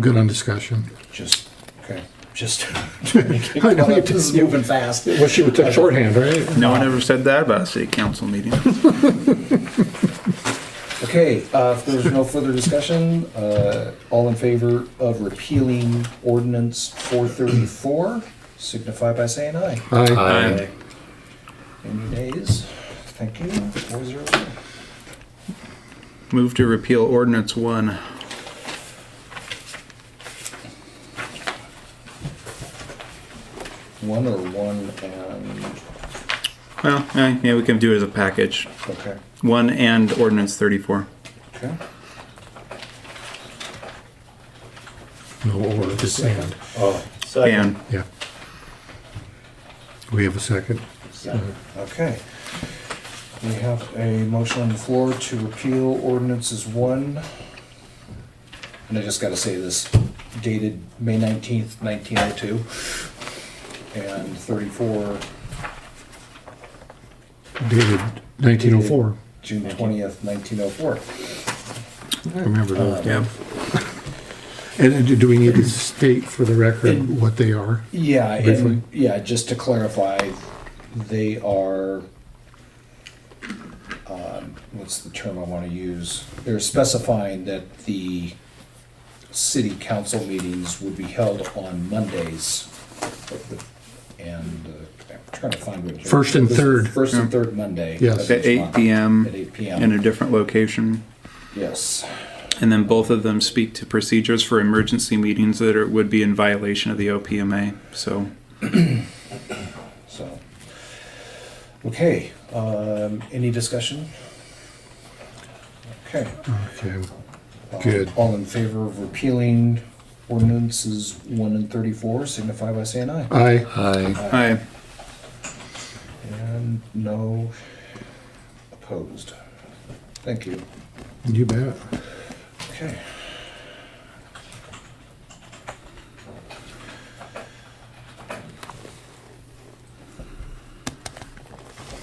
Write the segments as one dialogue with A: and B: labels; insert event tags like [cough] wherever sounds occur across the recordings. A: Good on discussion.
B: Just, okay, [laughs] just.
A: I know,
B: This [laughs] is moving fast.
A: Well, she would take shorthand, right?
C: No one ever said that about a city council meeting.
B: Okay, uh, if there's no further discussion, uh, all in favor of repealing ordinance four thirty-four, signify by saying aye.
A: Aye.
C: Aye.
B: Any nays? Thank you. Four zero zero.
C: Move to repeal ordinance one.
B: One or one and,
C: Well, eh, yeah, we can do it as a package.
B: okay,
C: One and ordinance thirty-four.
B: okay.
A: No, or just and,
B: Oh,
C: And
A: yeah. We have a second.
B: Okay. We have a motion on the floor to repeal ordinances one. And I just gotta say this dated May nineteenth, nineteen oh two. And thirty-four,
A: Dated 1904.
B: June twentieth, nineteen oh four.
A: Remember
B: Um,
A: those.
C: yeah,
A: [laughs] And and do we need to state for the record what they are?
B: Yeah,
A: Briefly.
B: and, yeah, just to clarify, they are, um, what's the term I want to use? They're specifying that the city council meetings would be held on Mondays. And uh, I'm trying to find what.
A: First and third.
B: First and third Monday.
A: Yes.
B: of
C: at
B: each
C: eight
B: month.
C: p.m.
B: At eight
C: in a
B: PM,
C: different location,
B: yes.
C: and then both of them speak to procedures for emergency meetings that are, would be in violation of the OPMA. So
B: So, okay, um, any discussion? Okay.
A: Okay. Good.
B: Um, All in favor of repealing ordinances one and thirty-four, signify by saying aye.
A: Aye.
D: Aye.
C: I
B: And no opposed. Thank you.
A: You bet.
B: Okay.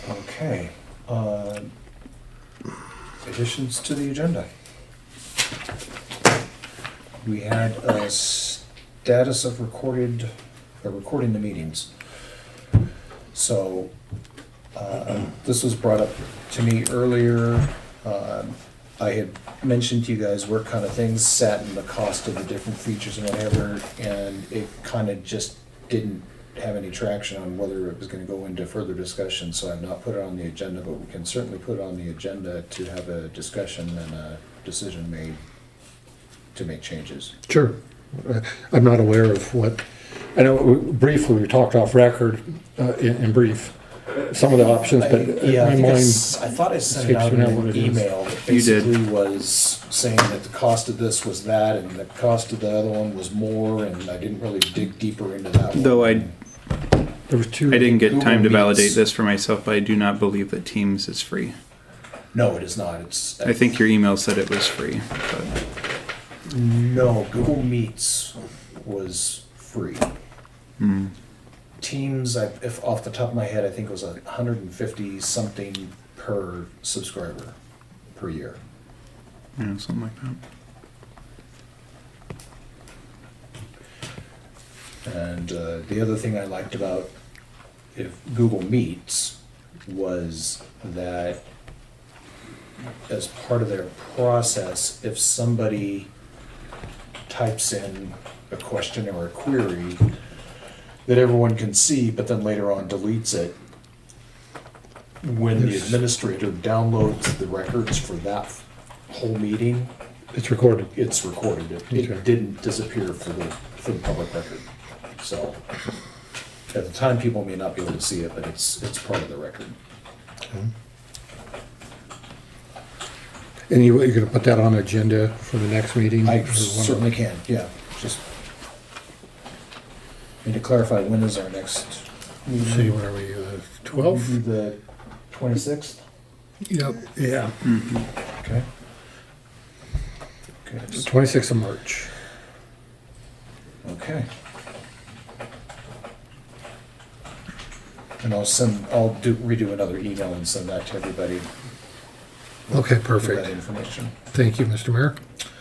B: Okay, uh, additions to the agenda. We had a status of recorded, uh, recording the meetings. So, uh, this was brought up to me earlier. Um, I had mentioned to you guys where kind of things sat and the cost of the different features and whatever, and it kind of just didn't have any traction on whether it was gonna go into further discussion, so I've not put it on the agenda, but we can certainly put it on the agenda to have a discussion and a decision made to make changes.
A: Sure. Uh, I'm not aware of what, I know we- briefly, we talked off record uh, in in brief, some of the options,
B: I-
A: but
B: Yeah, I
A: my
B: think I
A: mind,
B: s- I thought I sent it
A: escapes
B: out in
A: me now what
B: an
A: it is.
B: email. that
C: You did.
B: Basically was saying that the cost of this was that and the cost of the other one was more and I didn't really dig deeper into that one.
C: though I
A: there was two.
C: I didn't get time to
B: Google
C: validate
B: Meets.
C: this for myself, but I do not believe that Teams is free.
B: No, it is not. It's.
C: I think your email said it was free, but
B: No, Google Meets was free.
C: Hmm.
B: Teams, I, if off the top of my head, I think it was a hundred and fifty something per subscriber per year.
C: you know, something like that.
B: And uh, the other thing I liked about if Google Meets was that as part of their process, if somebody types in a question or a query that everyone can see, but then later on deletes it, when the
A: Yes.
B: administrator downloads the records for that whole meeting,
A: It's recorded.
B: it's recorded. It,
A: Okay.
B: it didn't disappear for the, for the public record. So at the time, people may not be able to see it, but it's, it's part of the record.
A: And you, you're gonna put that on agenda for the next meeting?
B: I
A: Or one of-
B: certainly can, yeah, just. Need to clarify, when is our next?
A: Let's See, what are we, uh, twelve?
B: The twenty-sixth?
A: Yep. Yeah.
B: Okay. Okay.
A: Twenty-sixth of March.
B: Okay. And I'll send, I'll do, redo another email and send that to everybody,
A: Okay,
B: with that
A: perfect.
B: information.
A: Thank you, Mr. Mayor.